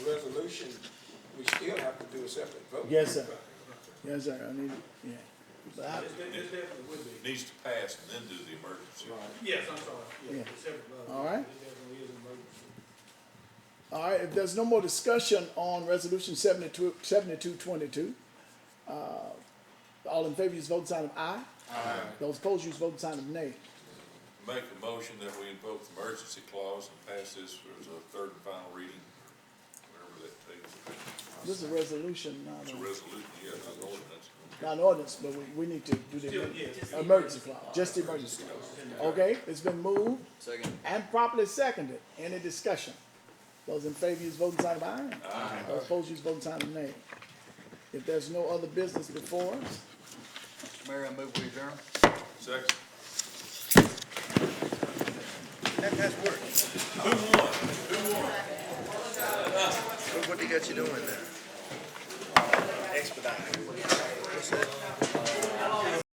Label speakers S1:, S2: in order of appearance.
S1: just have to vote.
S2: Yes, sir. Yes, sir, I need it, yeah. But I,
S3: It, it definitely would be.
S4: needs to pass and then do the emergency.
S3: Yes, I'm sorry. Yeah,
S2: Yeah.
S3: it's separate vote.
S2: All right.
S3: It definitely is an emergency.
S2: all right, if there's no more discussion on resolution seventy-two, seventy-two twenty-two, uh, all in favor, use vote sign of aye. Aye. Those opposed, use vote sign of nay.
S4: Make a motion that we invoke the emergency clause and pass this as a third and final reading, whatever that takes.
S2: This is a resolution, not
S4: It's a
S2: a-
S4: resolution, yeah, not an ordinance.
S2: not an ordinance, but we, we need to do
S3: Still,
S2: the
S3: yes.
S2: emergency clause, just the emergency clause. Okay, it's been moved
S5: Second.
S2: and properly seconded. Any discussion? Those in favor, use voting sign of aye. Aye. Those opposed, use voting sign of nay. If there's no other business before us,
S5: Mr. Mayor, I move we adjourn.
S4: Second.
S6: That, that's work. Who won? Who won? Look what they got you doing there. Expedite.